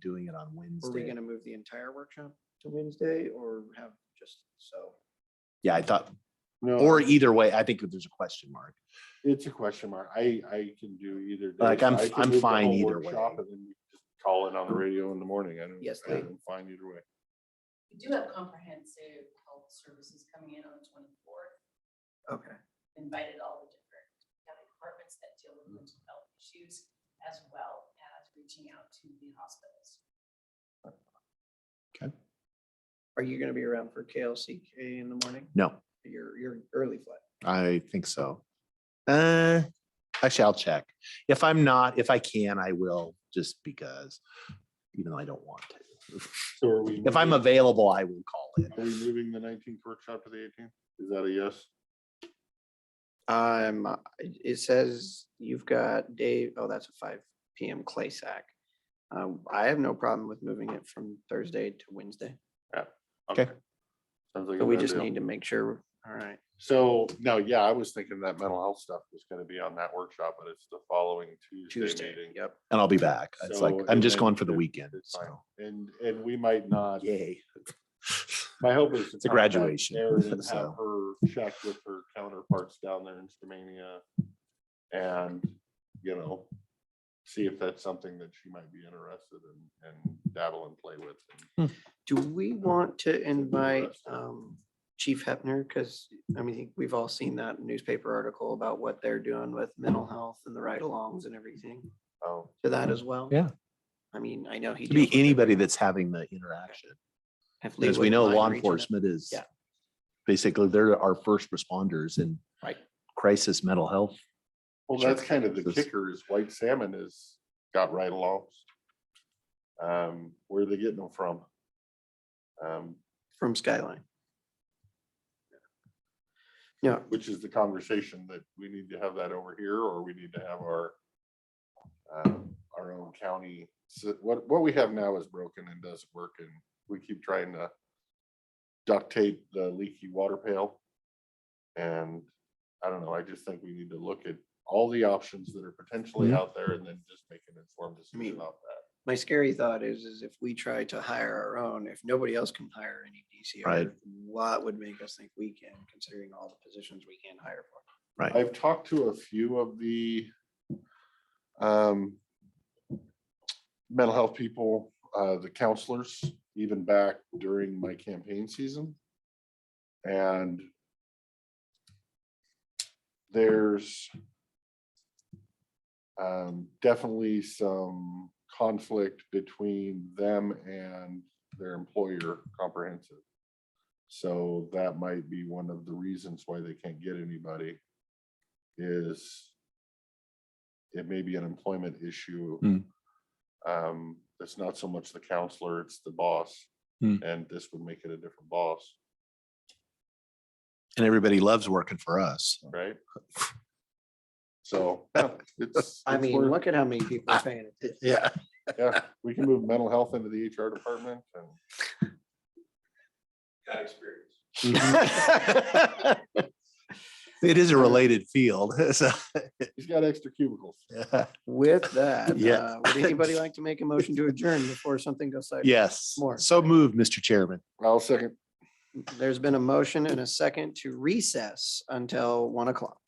doing it on Were we Wednesday. gonna move the entire workshop to Wednesday or have just so? Yeah, I thought, No, or it's- either way, I think that there's a question mark. It's a question mark. I, I can do either. day. Like, I'm- I can I'm move the fine whole either workshop way. and then we just Call in on the radio in the morning. I don't, Yes, I they- am fine either way. We do have comprehensive health services coming in on the twenty-fourth, Okay. invited all the different county departments that deal with mental health issues as well as reaching out to the hospitals. Are you gonna be around for KLCK in the morning? No, Your, your early flight? I think so. Uh, I shall check. If I'm not, if I can, I will, just because, even though I don't want to. So are we? If I'm moving- available, I will call in. Are we moving the nineteenth workshop to the eighteenth? Is that a yes? Um, uh, it it says you've got Dave, oh, that's a five PM clay sack. Um, I have no problem with moving it from Thursday to Wednesday, Okay. Sounds like. but a we fair just deal. need to make sure, all right. So, no, yeah, I was thinking that mental health stuff was gonna be on that workshop, but it's the following Tuesday Tuesday, meeting. yep. And I'll be back. It's like, So, I'm and just then going for the it's- weekend, it's fine. so, And, and we might not, yay. my hope is. to It's a contact graduation, Erin and Have so. her check with her counterparts down there in Stamania. And, you know, see if that's something that she might be interested in and dabble and play with. and- Do we want to invite interesting. um, Chief Hepner? Because, I mean, we've all seen that newspaper article about what they're doing with mental health and the ride-alongs and everything Oh, to that as well. Yeah. I mean, I know he. It could be deals with it, anybody but that's having the interaction, if Lee because we wouldn't know mind law reaching out- enforcement is Yeah. basically, they're our first responders in Right. crisis mental health. well, Sure. that's kind of the This- kicker is white salmon has got right alongs. Um, where are they getting them from? Um, From Skyline. Yeah, which is the conversation that we need to have that over here, or we need to have our um, our own county, so what, what we have now is broken and doesn't work, and we keep trying to duct tape the leaky water pail. And I don't know, I just think we need to look at all the options that are potentially Mhm. out there and then just make an informed mean- decision about that. my scary thought is, is if we try to hire our own, if nobody else can hire any Right. DCR, what would make us think we can, considering all the positions we can hire for? Right, I've talked to a few of the um, mental health people, uh, the counselors, even back during my campaign season. And there's um, definitely some conflict between them and their employer comprehensive. So that might be one of the reasons why they can't get anybody is it may be an employment issue. Hmm. Um, it's not so much the counselor, it's the boss. Hmm. And this would make it a different boss, and everybody loves working for us. right? So, yeah, it's. I it's mean, worth- look at how many people are paying attention. Yeah. Yeah, we can move mental health into the HR department and. Mm-hmm. It is a related field, so. He's got extra cubicles. With that, Yeah. uh, would anybody like to make a motion to adjourn before something goes sideways? Yes, More. so moved, Mr. Chairman. I'll second. There's been a motion and a second to recess until one o'clock.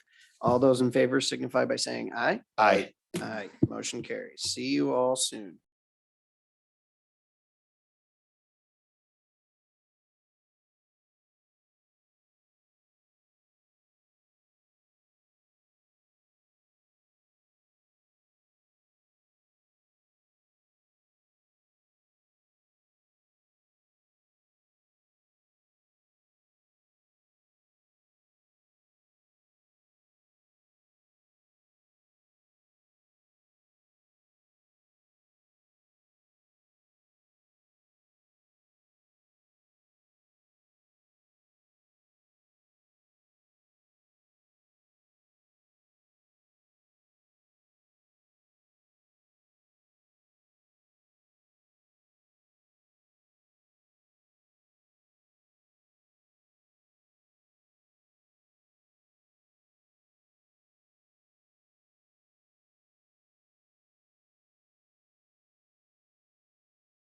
All those in favor signify by saying aye. Aye. Aye. Motion carries. See you all soon.